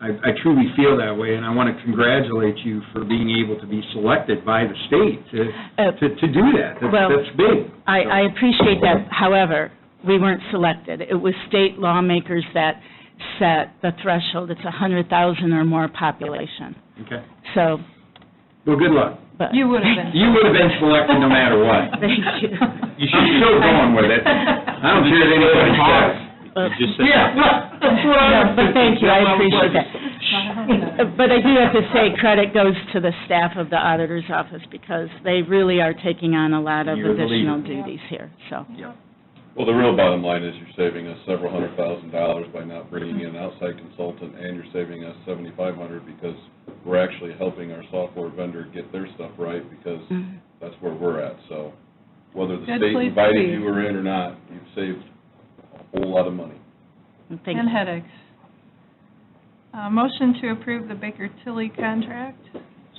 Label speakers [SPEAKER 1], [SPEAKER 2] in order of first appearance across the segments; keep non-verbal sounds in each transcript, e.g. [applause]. [SPEAKER 1] I I truly feel that way, and I want to congratulate you for being able to be selected by the state to
[SPEAKER 2] Uh,
[SPEAKER 1] to to do that. That's-
[SPEAKER 2] Well,
[SPEAKER 1] That's big.
[SPEAKER 2] I, I appreciate that, however, we weren't selected. It was state lawmakers that set the threshold, it's a hundred thousand or more population,
[SPEAKER 1] Okay.
[SPEAKER 2] so,
[SPEAKER 1] Well, good luck.
[SPEAKER 2] but.
[SPEAKER 3] You would have been.
[SPEAKER 1] You would have been selected no matter what.
[SPEAKER 2] [laughs] Thank you.
[SPEAKER 1] You should be still going with
[SPEAKER 2] [laughs]
[SPEAKER 1] it. I don't care if anybody says.
[SPEAKER 2] Uh,
[SPEAKER 1] Yeah, well, that's what I
[SPEAKER 2] No,
[SPEAKER 1] was
[SPEAKER 2] but thank
[SPEAKER 1] thinking.
[SPEAKER 2] you, I
[SPEAKER 1] That's why
[SPEAKER 2] appreciate
[SPEAKER 1] was
[SPEAKER 2] that.
[SPEAKER 1] like,
[SPEAKER 2] Uh, [laughs] But I do have to say, credit goes to the staff of the auditor's office, because they really are taking on a lot of
[SPEAKER 1] You're the leader.
[SPEAKER 2] additional duties here, so.
[SPEAKER 4] Well, the real bottom line is you're saving us several hundred thousand dollars by not bringing in an outside consultant, and you're saving us seventy-five hundred because we're actually helping our software vendor get their stuff right, because
[SPEAKER 2] Mhm.
[SPEAKER 3] Mm-hmm.
[SPEAKER 4] that's where we're at, so whether the
[SPEAKER 3] Mm. Good
[SPEAKER 4] state
[SPEAKER 3] place to
[SPEAKER 4] invited
[SPEAKER 3] be.
[SPEAKER 4] you or in or not, you've saved a whole lot of money.
[SPEAKER 2] And thank
[SPEAKER 3] And headaches. Uh, Motion to approve the Baker Tilly contract.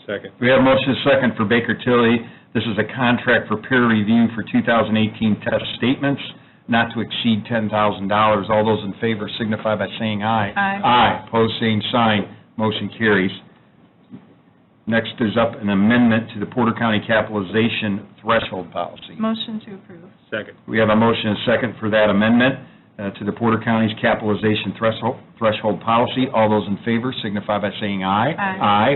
[SPEAKER 5] Second.
[SPEAKER 1] We have motion and second for Baker Tilly. This is a contract for peer review for 2018 test statements, not to exceed $10,000. All those in favor signify by saying aye.
[SPEAKER 3] Aye.
[SPEAKER 1] Aye, pose same sign, motion carries. Next is up an amendment to the Porter County capitalization threshold policy.
[SPEAKER 3] Motion to approve.
[SPEAKER 5] Second.
[SPEAKER 1] We have a motion and second for that amendment uh, to the Porter County's capitalization threshold threshold policy. All those in favor signify by saying aye.
[SPEAKER 3] Aye.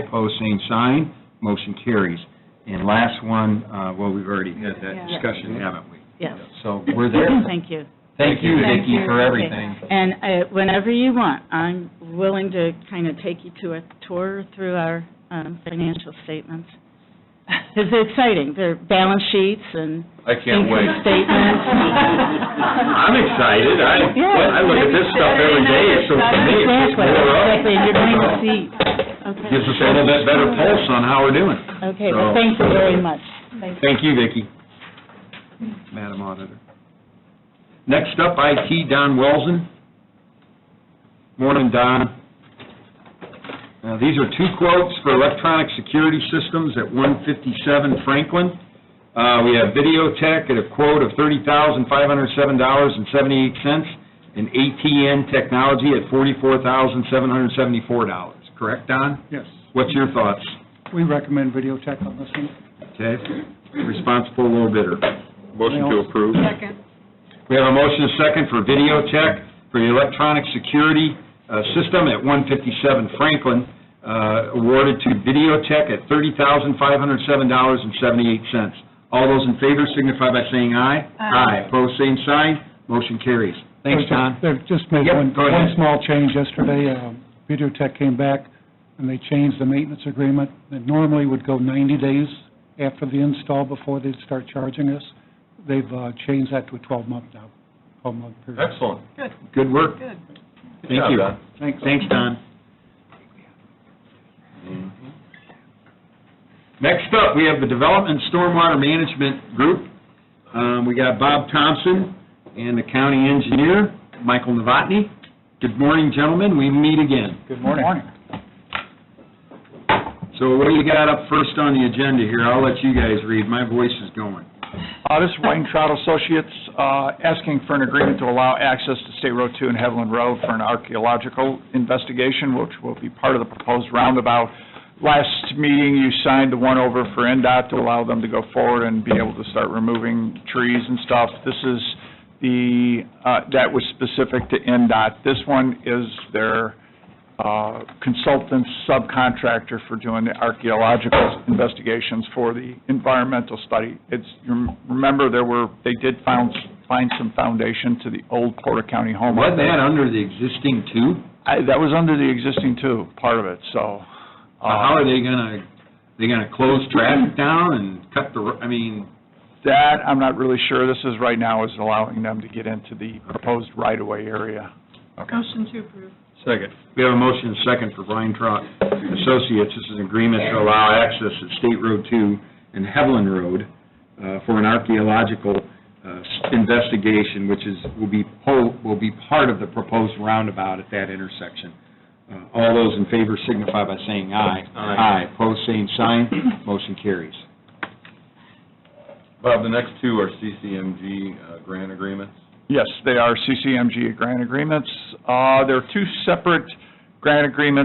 [SPEAKER 1] Aye, pose same sign, motion carries. And last one, uh, well, we've already had that
[SPEAKER 3] Yeah.
[SPEAKER 1] discussion, haven't we?
[SPEAKER 2] Yes.
[SPEAKER 1] So we're there.
[SPEAKER 2] Thank you.
[SPEAKER 1] Thank you,
[SPEAKER 3] Thank
[SPEAKER 1] Vicki,
[SPEAKER 3] you.
[SPEAKER 1] for
[SPEAKER 3] Okay.
[SPEAKER 1] everything.
[SPEAKER 2] And uh, whenever you want, I'm willing to kind of take you to a tour through our um, financial statements. Because they're exciting, they're balance sheets and
[SPEAKER 4] I can't wait.
[SPEAKER 2] income statements.
[SPEAKER 1] [laughs] I'm excited. I,
[SPEAKER 2] Yeah.
[SPEAKER 1] I look at this stuff every day, so for me, it's just
[SPEAKER 2] Exactly,
[SPEAKER 1] more up.
[SPEAKER 2] exactly, and you're going to see, okay.
[SPEAKER 1] Gives us a little bit better pulse on how we're doing.
[SPEAKER 2] Okay, well, thank you very much. Thank you.
[SPEAKER 1] Thank you, Vicki. Madam Auditor. Next up, IT, Don Welzen. Morning, Don. Now, these are two quotes for electronic security systems at 157 Franklin. Uh, We have Videotech at a quote of $30,507.78, and ATN Technology at $44,774, correct, Don?
[SPEAKER 6] Yes.
[SPEAKER 1] What's your thoughts?
[SPEAKER 6] We recommend video check on this one.
[SPEAKER 1] Okay, responsible low bidder.
[SPEAKER 5] Motion to approve.
[SPEAKER 3] Second.
[SPEAKER 1] We have a motion and a second for video check for the electronic security uh, system at 157 Franklin, uh, awarded to video check at $30,507.78. All those in favor signify by saying aye.
[SPEAKER 3] Aye.
[SPEAKER 1] Pose same sign, motion carries. Thanks, Don.
[SPEAKER 6] They've just made
[SPEAKER 1] Yep,
[SPEAKER 6] one,
[SPEAKER 1] go ahead.
[SPEAKER 6] one small change yesterday. Um, Videotech came back and they changed the maintenance agreement that normally would go 90 days after the install before they'd start charging us. They've uh, changed that to a 12-month now, 12-month period.
[SPEAKER 4] Excellent.
[SPEAKER 1] Good work.
[SPEAKER 3] Good.
[SPEAKER 1] Thank you.
[SPEAKER 6] Thanks.
[SPEAKER 1] Thanks, Don. Next up, we have the Development Stormwater Management Group. Um, We got Bob Thompson and the county engineer, Michael Novotny. Good morning, gentlemen, we meet again.
[SPEAKER 6] Good morning.
[SPEAKER 1] So what do you got up first on the agenda here? I'll let you guys read, my voice is going.
[SPEAKER 7] Uh, This is Weintraub Associates, uh, asking for an agreement to allow access to State Road 2 and Heveland Road for an archaeological investigation, which will be part of the proposed roundabout. Last meeting, you signed the one over for NDOT to allow them to go forward and be able to start removing trees and stuff. This is the, uh, that was specific to NDOT. This one is their uh, consultant subcontractor for doing the archaeological investigations for the environmental study. It's, you remember, there were, they did found, find some foundation to the old Porter County home.
[SPEAKER 1] Wasn't that under the existing two?
[SPEAKER 7] I- That was under the existing too, part of it, so. uh,
[SPEAKER 1] How are they gonna, they gonna close traffic down and cut the, ro- I mean,
[SPEAKER 7] That, I'm not really sure. This is, right now, is allowing them to get into the proposed right-of-way area.
[SPEAKER 3] Motion to approve.
[SPEAKER 1] Second. We have a motion and second for Brian Trout Associates. This is an agreement to allow access at State Road 2 and Heveland Road uh, for an archaeological uh, investigation, which is, will be, po- will be part of the proposed roundabout at that intersection. Uh, All those in favor signify by saying aye. Aye. Aye, pose same [clears throat] sign, motion carries.
[SPEAKER 4] Bob, the next two are CCMG uh, grant agreements.
[SPEAKER 7] Yes, they are CCMG grant agreements. Uh, There are two separate grant agreements